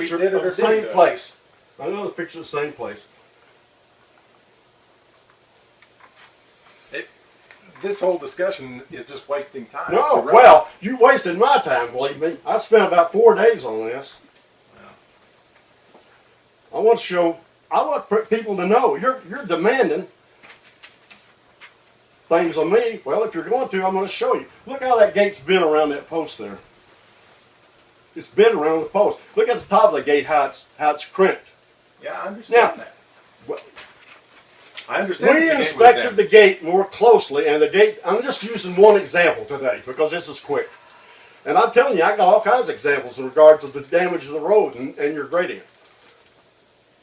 picture did it of or the same didn't. place. I know the picture of the same place. This whole discussion is just wasting time. It's No, irrelevant. well, you wasted my time, believe me. I spent about four days on this. I want to show, I want pr- people to know, you're, you're demanding things of me. Well, if you're going to, I'm going to show you. Look how that gate's bent around that post there. It's bent around the post. Look at the top of the gate, how it's, how it's crimped. yeah, I understand Now, that. well- I understand. that We the gate was inspected down. the gate more closely, and the gate, I'm just using one example today because this is quick. And I'm telling you, I got all kinds of examples in regard to the damage of the road and, and your grading it.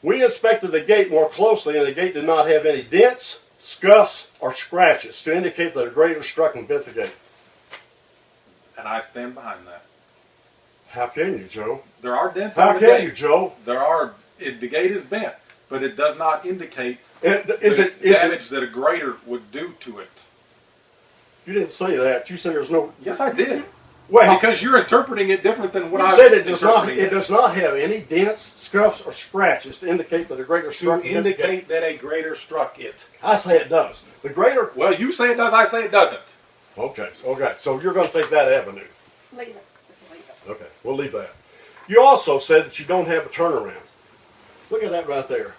We inspected the gate more closely, and the gate did not have any dents, scuffs, or scratches to indicate that a grader struck and bent the gate. and I stand behind that. How can you, Joe? There are dents on How the can gate. you, Joe? There are. It, the gate is bent, but it does not indicate It- Is the it, is damage it, that a grader would do to it. you didn't say that. You said there's no, Yes, I did. well, because you're interpreting it different than what you I said it does not, interpreting it does not have any dents, scuffs, or scratches to indicate that a grader To struck and bent the gate. indicate that a grader struck it. I say it does. The greater. Well, you say it does. I say it doesn't. Okay, okay. So you're going to take that avenue. Leave it. Just leave it. Okay, we'll leave that. You also said that you don't have a turnaround. Look at that right there.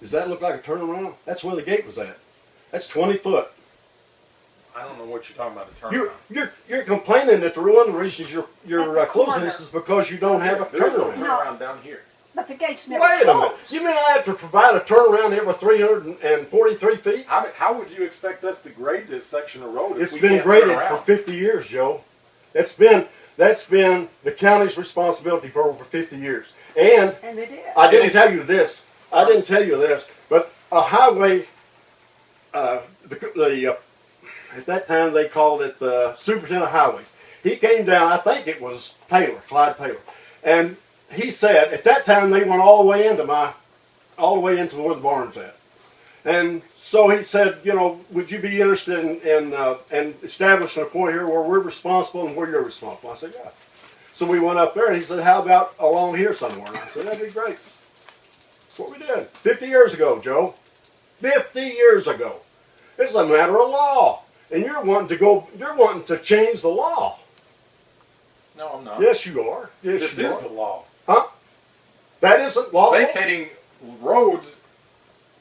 Does that look like a turnaround? That's where the gate was at. That's 20 foot. I don't know what you're talking about. The turnaround. You're you're you're complaining that the one of the reasons you're At you're the uh, closing corner. this is because you don't have a There's no turnaround. turnaround down here. But the gate's never Wait a minute. closed. You mean I have to provide a turnaround every 343 feet? How, do- how would you expect us to grade this section of road? if It's we been can't turn graded for around? fifty years, Joe. That's been, that's been the county's responsibility for over fifty years. And And it is. I didn't tell you this, I didn't tell you this, but a highway, uh, the, the, uh, at that time they called it the superintendent of highways. He came down, I think it was Taylor, Clyde Taylor, and he said, at that time they went all the way into my, all the way into where the barn's at. And so he said, you know, would you be interested in, in, uh, in establishing a point here where we're responsible and where you're responsible? I said, yeah. So we went up there and he said, how about along here somewhere? And I said, that'd be great. That's what we did. 50 years ago, Joe. 50 years ago. It's a matter of law. And you're wanting to go, you're wanting to change the law. No, I'm not. Yes, you are. Yes, this you is are. the law. that isn't law. Vacating roads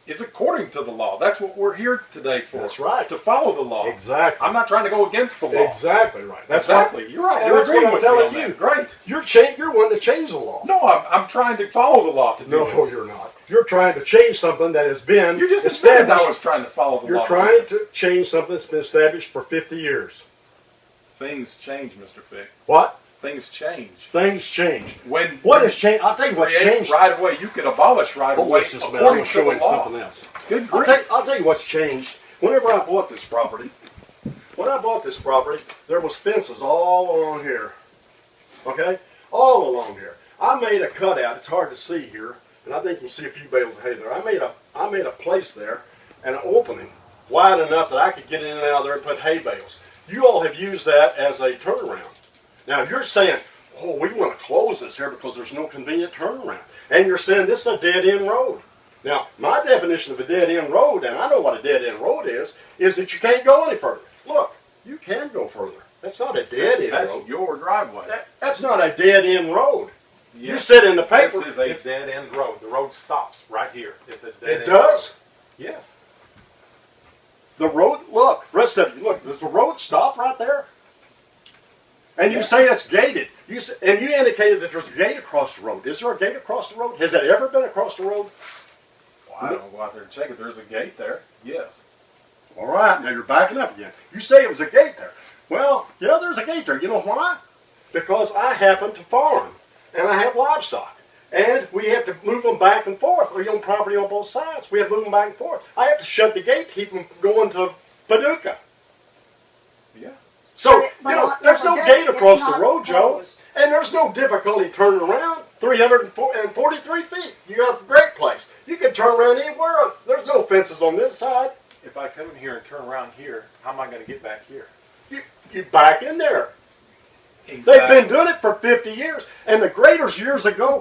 is according to the law. That's what we're here today for. That's right. To follow the law. Exactly. I'm not trying to go against the law. Exactly right. That's right. exactly. You're right. and You're that's what agreeing I'm with me telling on you. that. Great. You're, cha- you're wanting to change the law. No, I'm, I'm trying to follow the law to do No, this. you're not. You're trying to change something that has been You just admitted established. I was trying to follow the you're law. trying do this. to change something that's been established for 50 years. Things change, Mr. Fick. What? Things change. Things change. When What has changed? I'll tell you what's create changed. right away, you could abolish right Oh, away wait just a minute. I'm according going to show to you the law. something else. Good I'll grief. tell, I'll tell you what's changed. Whenever I bought this property, when I bought this property, there was fences all along here. Okay? All along here. I made a cutout. It's hard to see here, and I think you can see a few bales of hay there. I made a I made a place there and an opening wide enough that I could get in and out of there and put hay bales. You all have used that as a turnaround. Now you're saying, oh, we want to close this here because there's no convenient turnaround. And you're saying this is a dead end road. Now, my definition of a dead end road, and I know what a dead end road is, is that you can't go any further. Look, you can go further. That's not a dead end That's road. your driveway. That, that's not a dead end road. You Yes. said in the paper. This is a dead end road. The road stops right here. It's a dead it end. does. Yes. The road, look, rest of you, look, does the road stop right there? And you Yeah. say it's gated. You s and you indicated that there's a gate across the road. Is there a gate across the road? Has it ever been across the road? Well, I don't go out there and check it. There's a gate there. Yes. All right, now you're backing up again. You say it was a gate there. Well, yeah, there's a gate there. You know why? Because I happen to farm and I have livestock. And we have to move them back and forth. We own property on both sides. We have to move them back and forth. I have to shut the gate to keep them going to Paducah. Yeah. So, But- but you know, on- there's no on that, gate it's across the not road, Joe. closed. And there's no difficulty turning around 343 feet. You got a great place. You can turn around anywhere. There's no fences on this side. If I come in here and turn around here, how am I going to get back here? You, you back in there. They've Exactly. been doing it for fifty years, and the graders years ago